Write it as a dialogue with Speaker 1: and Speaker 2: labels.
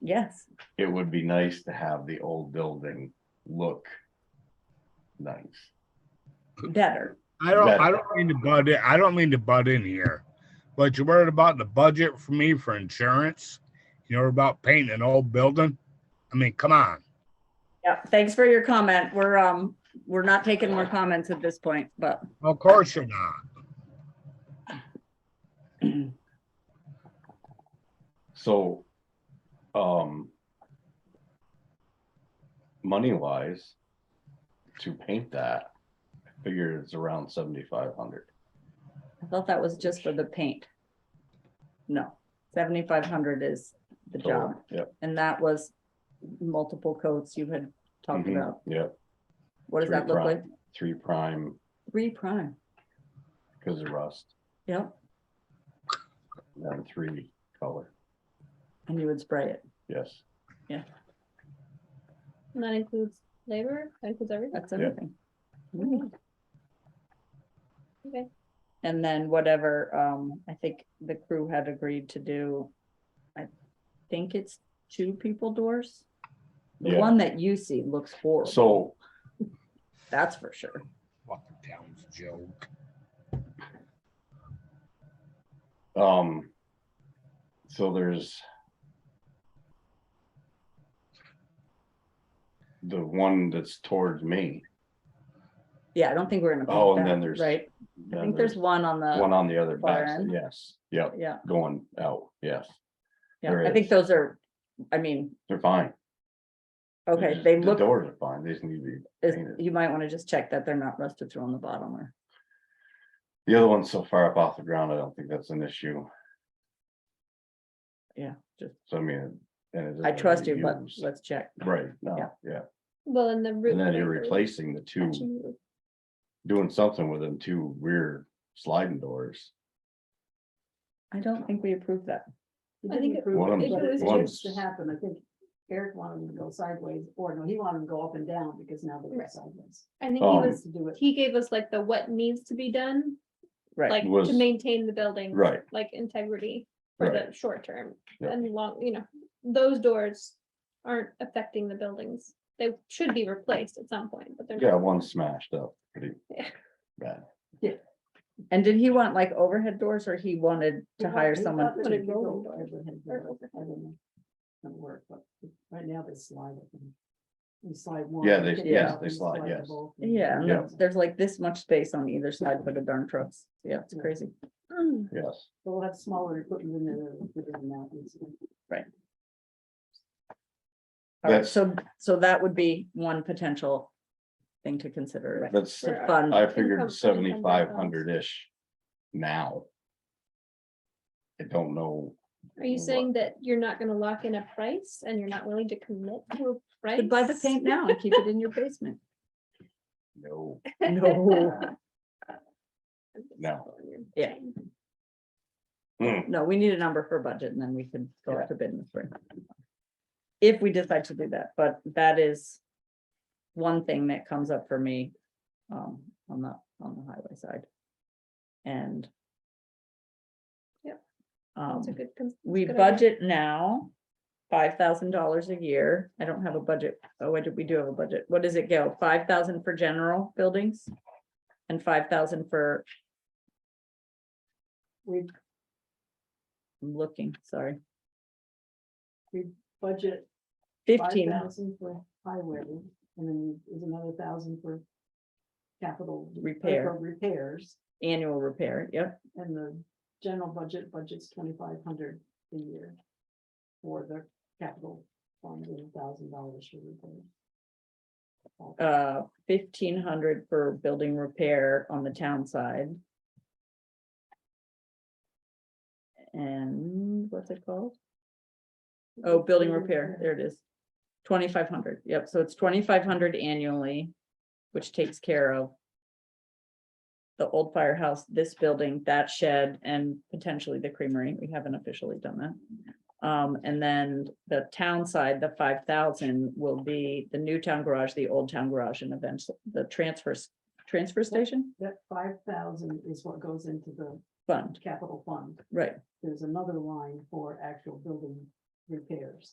Speaker 1: yes,
Speaker 2: it would be nice to have the old building look nice.
Speaker 1: better.
Speaker 3: I don't,
Speaker 2: Better.
Speaker 3: I don't mean to butt in, I don't mean to butt in here, but you're worried about the budget for me for insurance? You're about painting an old building? I mean, come on.
Speaker 1: Yeah, thanks for your comment. We're, um, we're not taking more comments at this point, but
Speaker 3: Of course you're not.
Speaker 2: So, um, money wise, to paint that, I figure it's around seventy-five hundred.
Speaker 1: I thought that was just for the paint. No, seventy-five hundred is the job,
Speaker 2: Yep.
Speaker 1: and that was multiple coats you had talked
Speaker 2: mhm,
Speaker 1: about.
Speaker 2: Yep,
Speaker 1: What does
Speaker 2: Three
Speaker 1: that look like?
Speaker 2: prime. three prime
Speaker 1: Three prime,
Speaker 2: because of rust,
Speaker 1: yep,
Speaker 2: and three color,
Speaker 1: and you would spray it.
Speaker 2: yes.
Speaker 4: And that includes labor, that includes everything.
Speaker 1: That's everything.
Speaker 2: Mm-hmm.
Speaker 1: Mm.
Speaker 4: Okay.
Speaker 1: And then whatever, um, I think the crew had agreed to do, I think it's two people doors. The
Speaker 2: Yeah.
Speaker 1: one that you see looks horrible,
Speaker 2: So
Speaker 1: that's for sure.
Speaker 3: Fucking town's joke.
Speaker 2: Um, so there's the one that's towards me.
Speaker 1: Yeah, I don't think we're in a.
Speaker 2: Oh, and then there's-
Speaker 1: Right, I
Speaker 2: then
Speaker 1: think there's one on
Speaker 2: One
Speaker 1: the,
Speaker 2: on the other
Speaker 1: far
Speaker 2: back,
Speaker 1: end.
Speaker 2: yes, yep,
Speaker 1: yeah,
Speaker 2: going out, yes,
Speaker 1: yeah,
Speaker 2: there
Speaker 1: I think
Speaker 2: is.
Speaker 1: those are, I mean,
Speaker 2: they're fine. They're
Speaker 1: okay,
Speaker 2: just-
Speaker 1: they
Speaker 2: the
Speaker 1: look,
Speaker 2: Doors are fine, they just need to be,
Speaker 1: is-
Speaker 2: painted.
Speaker 1: you might wanna just check that they're not rusted through on the bottom or,
Speaker 2: the other one's so far up off the ground, I don't think that's an issue,
Speaker 1: yeah, just,
Speaker 2: so I mean. and it
Speaker 1: I
Speaker 2: doesn't
Speaker 1: trust
Speaker 2: really
Speaker 1: you, but
Speaker 2: use-
Speaker 1: let's check.
Speaker 2: Right,
Speaker 1: Yeah.
Speaker 2: no, yeah,
Speaker 4: Well, and the.
Speaker 2: and then you're replacing the two,
Speaker 4: replacing.
Speaker 2: doing something with them two rear sliding doors.
Speaker 1: I don't think we approved that. We
Speaker 5: I
Speaker 1: didn't
Speaker 5: think it-
Speaker 1: approve
Speaker 2: One of
Speaker 1: it,
Speaker 5: If
Speaker 2: them-
Speaker 1: but-
Speaker 5: it was
Speaker 2: One-
Speaker 5: supposed to happen, I think Eric wanted them to go sideways, or no, he wanted them to go up and down because now they're
Speaker 4: Right.
Speaker 5: sideways.
Speaker 4: I think he
Speaker 2: Um,
Speaker 4: was,
Speaker 5: To do it.
Speaker 4: he gave us like the what needs to be done,
Speaker 1: Right,
Speaker 4: like to
Speaker 2: Was-
Speaker 4: maintain the building.
Speaker 2: Right,
Speaker 4: Like integrity for
Speaker 2: Right.
Speaker 4: the short term
Speaker 2: Yeah.
Speaker 4: and long, you know, those doors aren't affecting the buildings. They should be replaced at some point, but they're. not.
Speaker 2: yeah, one smashed up pretty
Speaker 4: Yeah.
Speaker 2: bad.
Speaker 1: and did he want like overhead doors or he wanted to
Speaker 5: He thought-
Speaker 1: hire
Speaker 5: he
Speaker 1: someone?
Speaker 5: thought that
Speaker 4: Put
Speaker 5: it'd
Speaker 4: it
Speaker 5: go
Speaker 4: roll
Speaker 5: over
Speaker 4: doors
Speaker 5: overhead
Speaker 4: or
Speaker 5: door, I don't know. It'll work, but right now they slide. it and You slide one.
Speaker 2: Yeah,
Speaker 5: you
Speaker 2: they-
Speaker 5: get
Speaker 1: yeah,
Speaker 5: out,
Speaker 2: they
Speaker 5: you
Speaker 2: slide,
Speaker 5: the
Speaker 2: yes.
Speaker 5: both, and-
Speaker 1: Yeah, and
Speaker 2: Yeah.
Speaker 1: there's- there's like this much space on either side for the darn trucks. Yeah, it's
Speaker 5: Yeah.
Speaker 1: crazy.
Speaker 4: Hmm.
Speaker 2: Yes,
Speaker 5: They'll have smaller equipment in there. they'll put it in the mountains.
Speaker 1: All right,
Speaker 2: That's-
Speaker 1: so, so that would be one potential thing to consider. right?
Speaker 2: that's,
Speaker 1: To
Speaker 4: Right. um,
Speaker 1: fund,
Speaker 2: I
Speaker 4: Income
Speaker 2: figured
Speaker 4: for the hundred
Speaker 2: seventy-five
Speaker 4: dollars.
Speaker 2: hundred-ish now. I don't know,
Speaker 4: Are you
Speaker 2: What?
Speaker 4: saying that you're not gonna lock in a price and you're not willing to commit to a price?
Speaker 1: could buy the paint now and keep it in your basement.
Speaker 2: no,
Speaker 1: No,
Speaker 2: No.
Speaker 1: Yeah.
Speaker 2: Hmm,
Speaker 1: no, we need a number for budget and then we could go out to bid in the spring. If we decide to do that, but that is one thing that comes up for me, um, on the, on the highway side. And.
Speaker 4: Yep.
Speaker 1: Um,
Speaker 4: That's a good, cons-
Speaker 1: we
Speaker 4: Good idea.
Speaker 1: budget now five thousand dollars a year. I don't have a budget. Oh, what did we do have a budget? What does it go? Five thousand for general buildings? And five thousand for,
Speaker 5: We
Speaker 1: I'm looking, sorry,
Speaker 5: budget
Speaker 1: fifteen.
Speaker 5: fifteen thousand for highway, and then there's another thousand for capital. or
Speaker 1: Repair.
Speaker 5: for Repairs.
Speaker 1: annual repair, yep.
Speaker 5: And the general budget budget's twenty-five hundred a year. For the capital fund and a thousand dollars for repairs.
Speaker 1: Uh, fifteen hundred for building repair on the town side. And what's it called? Oh, building repair, there it is. Twenty-five hundred, yep, so it's twenty-five hundred annually, which takes care of. The old firehouse, this building, that shed, and potentially the creamery, we haven't officially done that. Um, and then the town side, the five thousand will be the new town garage, the old town garage, and eventually the transfer, s- transfer station
Speaker 5: That five thousand is what goes into the
Speaker 1: fund,
Speaker 5: capital fund.
Speaker 1: right?
Speaker 5: There's another line for actual building repairs.